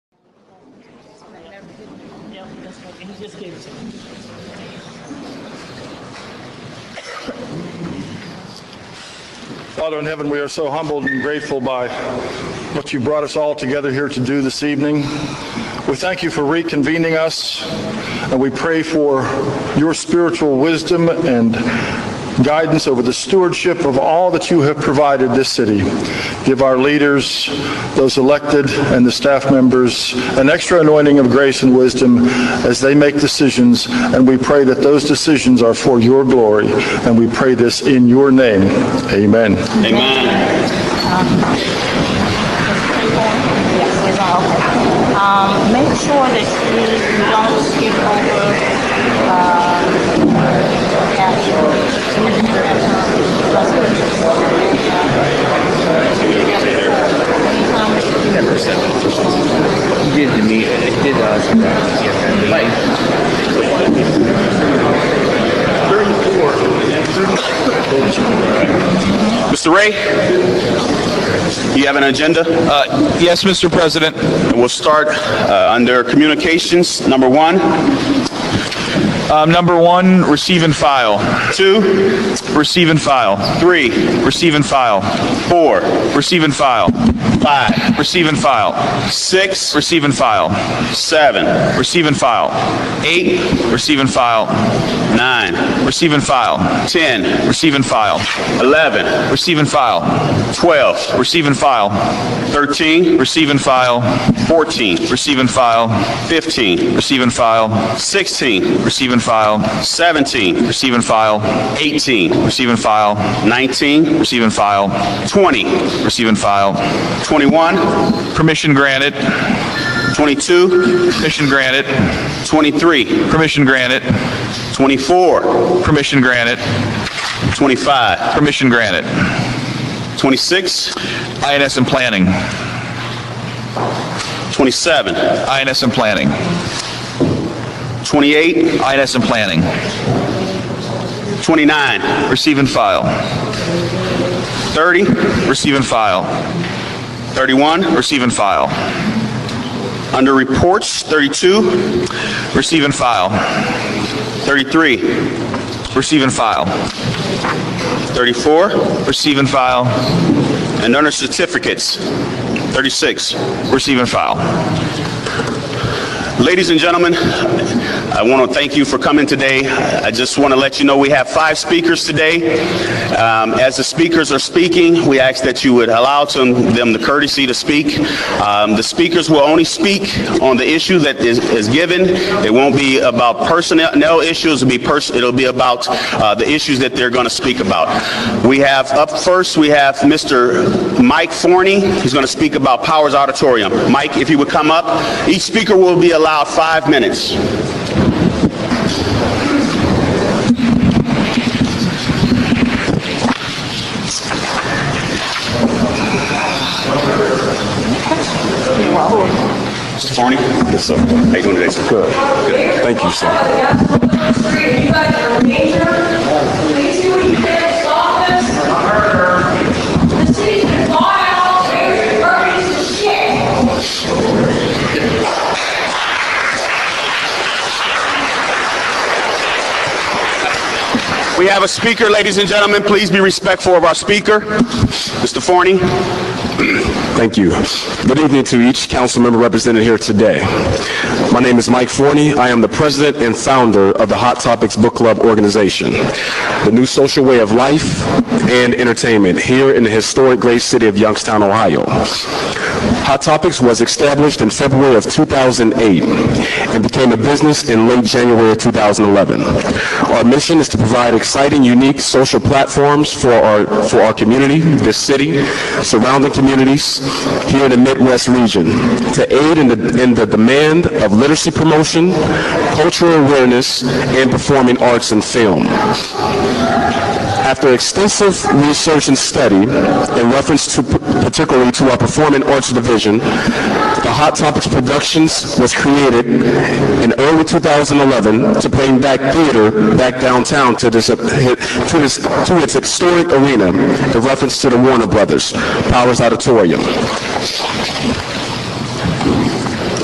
else, he doesn't know, he just gave it to me. Father in heaven, we are so humbled and grateful by what you brought us all together here to do this evening. We thank you for reconvening us, and we pray for your spiritual wisdom and guidance over the stewardship of all that you have provided this city. Give our leaders, those elected, and the staff members an extra anointing of grace and wisdom as they make decisions, and we pray that those decisions are for your glory, and we pray this in your name. Amen. Yes, it's all okay. Um, make sure that you don't skip over, um, actual. Number You did the meet. It did us. Like, Mr. Ray, you have an agenda? Uh, Yes, Mr. President. And We'll start uh, under communications, number one, Um, Number one, receive and file. two, Receive and file. three, Receive and file. four, Receive and file. five, Receive and file. six, Receive and file. seven, Receive and file. eight, Receive and file. nine, Receive and file. 10, Receive and file. 11, Receive and file. 12, Receive and file. 13, Receive and file. 14, Receive and file. 15, Receive and file. 16, Receive and file. 17, Receive and file. 18, Receive and file. 19, Receive and file. 20, Receive and file. 21, Permission granted. 22, Permission granted. 23, Permission granted. 24, Permission granted. 25, Permission granted. 26, INS and planning. 27, INS and planning. 28, INS and planning. 29, Receive and file. 30, Receive and file. 31, Receive and file. under reports, 32, Receive and file. 33, Receive and file. 34, Receive and file. and under certificates, 36. Receive and file. Ladies and gentlemen, I want to thank you for coming today. I just want to let you know we have five speakers today. Um, As the speakers are speaking, we ask that you would allow to- them the courtesy to speak. Um, The speakers will only speak on the issue that is is given. It won't be about personnel issues, it'll be pers- it'll be about uh, the issues that they're going to speak about. We have, up first, we have Mr. Mike Forney. He's going to speak about Powers Auditorium. Mike, if you would come up. Each speaker will be allowed five minutes. Mr. Forney? Yes, sir. How you doing today, sir? Good. Thank you, sir. You guys are major. Please do what you did, stop this. The city's been bought out, raised, burned, it's shit. We have a speaker, ladies and gentlemen. Please be respectful of our speaker. Mr. Forney? Thank you. Good evening to each council member represented here today. My name is Mike Forney. I am the president and founder of the Hot Topics Book Club organization, the new social way of life and entertainment here in the historic great city of Youngstown, Ohio. Hot Topics was established in February of 2008 and became a business in late January of 2011. Our mission is to provide exciting, unique social platforms for our, for our community, this city, surrounding communities here in the Midwest region to aid in the, in the demand of literacy promotion, cultural awareness, and performing arts and film. After extensive research and study in reference to particularly to our performing arts division, the Hot Topics Productions was created in early 2011 to bring back theater back downtown to this to this to its historic arena in reference to the Warner Brothers Powers Auditorium.